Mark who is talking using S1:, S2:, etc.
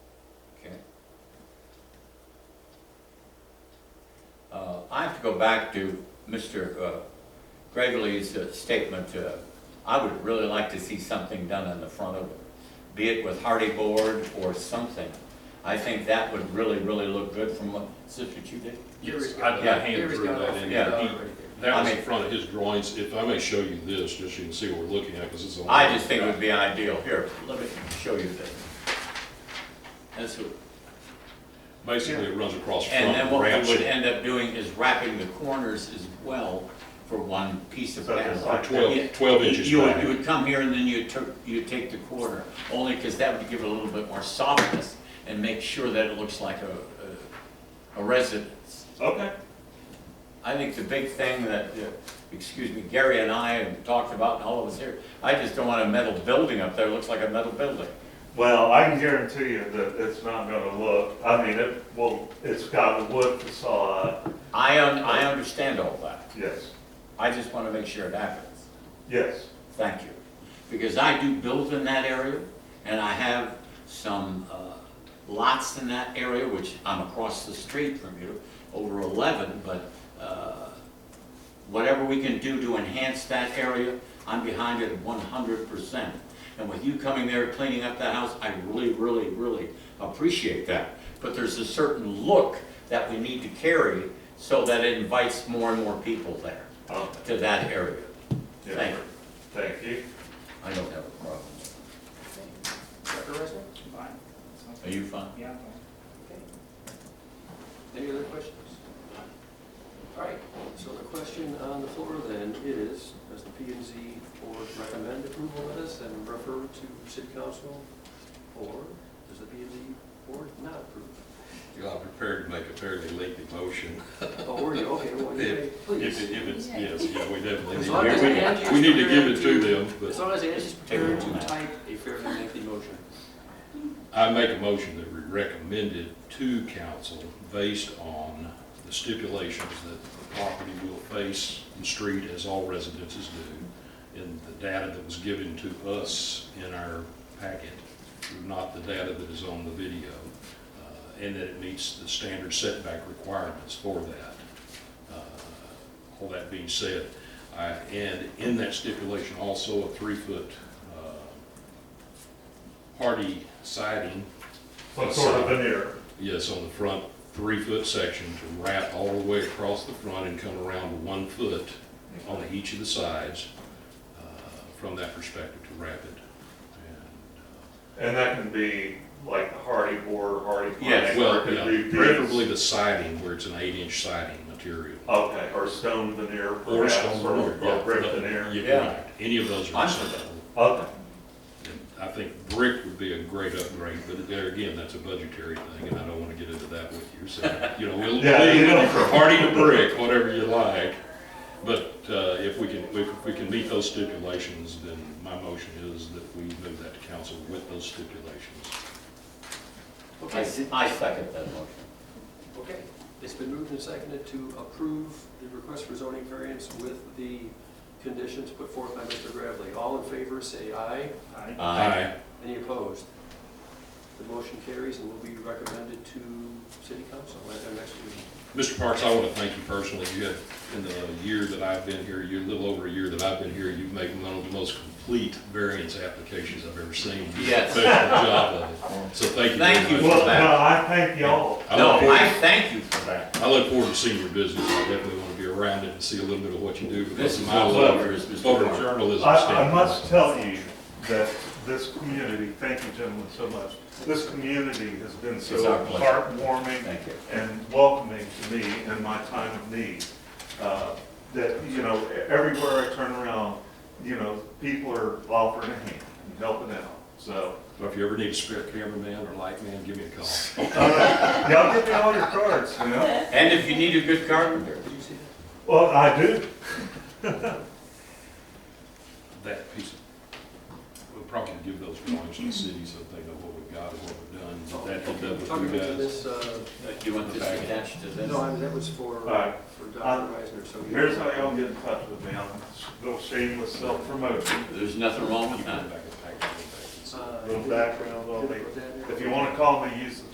S1: Uh, to go back to Mr. uh, Gravely's uh, statement. uh, I would really like to see something done on the front of it, be it with hardy board or something. I think that would really, really look good from what, is this what you did?
S2: Yes, I
S1: Yeah.
S2: I hand
S3: Gary's
S2: drew
S3: got
S2: that
S3: it.
S2: in.
S1: Yeah.
S2: He- That was
S1: I
S2: in
S1: mean-
S2: front of his drawings. If I may show you this, just so you can see what we're looking at, because it's a.
S1: I just think it would be ideal. Here, let me show you this. That's what-
S2: Basically, it runs across front
S1: And then
S2: and
S1: what
S2: wraps
S1: we would
S2: it.
S1: end up doing is wrapping the corners as well for one piece of
S4: So
S1: panel.
S4: there's like
S2: Twelve-
S1: Yeah.
S2: 12
S1: You-
S2: inches
S1: You would,
S2: back.
S1: you would come here and then you took, you take the corner, only because that would give it a little bit more softness and make sure that it looks like a, a a residence.
S4: Okay.
S1: I think the big thing that, uh, excuse me, Gary and I have talked about and all of us here, I just don't want a metal building up there, it looks like a metal building.
S4: Well, I can guarantee you that it's not gonna look, I mean, it will, it's got a wood facade,
S1: I, un- I understand all that,
S4: yes,
S1: I just want to make sure it happens.
S4: yes.
S1: Thank you. Because I do build in that area, and I have some uh, lots in that area, which I'm across the street from you, over 11, but uh, whatever we can do to enhance that area, I'm behind it 100%. And with you coming there, cleaning up that house, I really, really, really appreciate that. But there's a certain look that we need to carry so that it invites more and more people there,
S4: Um,
S1: to that area.
S4: yeah.
S1: Thank you.
S4: Thank you.
S1: I don't have a problem.
S3: Dr. Russell?
S5: Fine. Sounds
S1: Are
S5: good.
S1: you fine?
S5: Yeah, I'm fine.
S3: Any other questions? All right, so the question on the floor then is, does the P and Z board recommend approval of this and refer to city council? Or does the P and Z board not approve?
S2: You know, I'm prepared to make a fairly lengthy motion.
S3: Oh, were you, okay, well, you may,
S2: If,
S3: please.
S2: it- if it's, yes, yeah, we definitely.
S3: As
S2: need
S3: long
S2: to-
S3: as
S2: we-
S3: Angie's
S2: We need to give
S3: prepared
S2: it
S3: to-
S2: to them,
S3: As
S2: but
S3: long as Angie's prepared to type a fairly lengthy motion.
S2: I make a motion that we recommend it to council based on the stipulations that the property will face the street as all residences do, and the data that was given to us in our packet, not the data that is on the video, uh, and that it meets the standard setback requirements for that. Uh, All that being said, I- and in that stipulation also a three-foot uh, hardy siding,
S4: Some sort of veneer.
S2: yes, on the front three-foot section to wrap all the way across the front and come around to one foot on each of the sides uh, from that perspective to wrap it. And,
S4: And that can be like the hardy board, hardy plank.
S1: Yes,
S2: uh,
S4: or
S2: Well,
S4: it could be
S2: yeah,
S4: these-
S2: preferably the siding where it's an eight-inch siding material.
S4: Okay, or stone veneer
S2: Or
S4: perhaps,
S2: stone
S4: or
S2: veneer, yeah.
S4: or brick veneer.
S2: Yeah,
S1: Yeah.
S2: right. Any of those are
S1: I'm-
S2: acceptable.
S4: Okay,
S2: And I think brick would be a great upgrade, but there again, that's a budgetary thing, and I don't wanna get into that with you, so, you know, we'll leave
S4: Yeah, you
S2: it
S4: don't-
S2: for party to brick, whatever you like. But, uh, if we can, if we can meet those stipulations, then my motion is that we move that to council with those stipulations.
S1: I
S3: Okay,
S1: se- I second that motion.
S3: okay. It's been moved and seconded to approve the request for zoning variance with the conditions put forth by Mr. Gravely. All in favor, say aye.
S5: Aye.
S3: Any opposed? The motion carries and will be recommended to city council at their next meeting.
S2: Mr. Parks, I want to thank you personally. You have, in the year that I've been here, you a little over a year that I've been here, you've made one of the most complete variance applications I've ever seen. You did a
S1: Yes.
S2: Professional job of it. So thank you. very
S1: Thank you.
S2: much.
S4: well, no, I thank y'all.
S2: I
S1: No,
S2: look
S1: I
S2: forward-
S1: thank you for that.
S2: I look forward to seeing your business. I definitely want to be around it and see a little bit of what you do. because
S1: This is
S2: my
S1: what
S2: love
S1: matters, Mr.
S2: photo
S1: Parks.
S2: journalism
S4: I, I
S2: standpoint.
S4: must tell you that this community, thank you gentlemen so much, this community has been
S1: It's our
S4: so
S1: pleasure.
S4: heartwarming
S1: Thank you.
S4: and welcoming to me in my time of need. Uh, That, you know, everywhere I turn around, you know, people are offering a hand and helping out, so.
S2: So If you ever need a spare cameraman or light man, give me a call.
S4: Y'all give me all your cards, you know?
S1: And if you need a good carpenter,
S3: Did you see that?
S4: Well, I do,
S2: That piece, of- we'll probably give those drawings to the city so that they know what we've got and what we've done. But that will
S3: Oh, Okay,
S2: definitely
S3: Talking
S2: be
S3: about
S2: guys.
S3: this, uh,
S1: do you want this attached to this?
S3: no, I mean, that was for,
S4: All right. Uh,
S3: for Dr. Reisner, so. you-
S4: here's how y'all get in touch with me, I'm a little shameless self-promotion,
S1: There's nothing wrong with that.
S2: Back in the package.
S3: Uh,
S4: little background on me.
S3: Did I put that in?
S4: If you want to call me, use the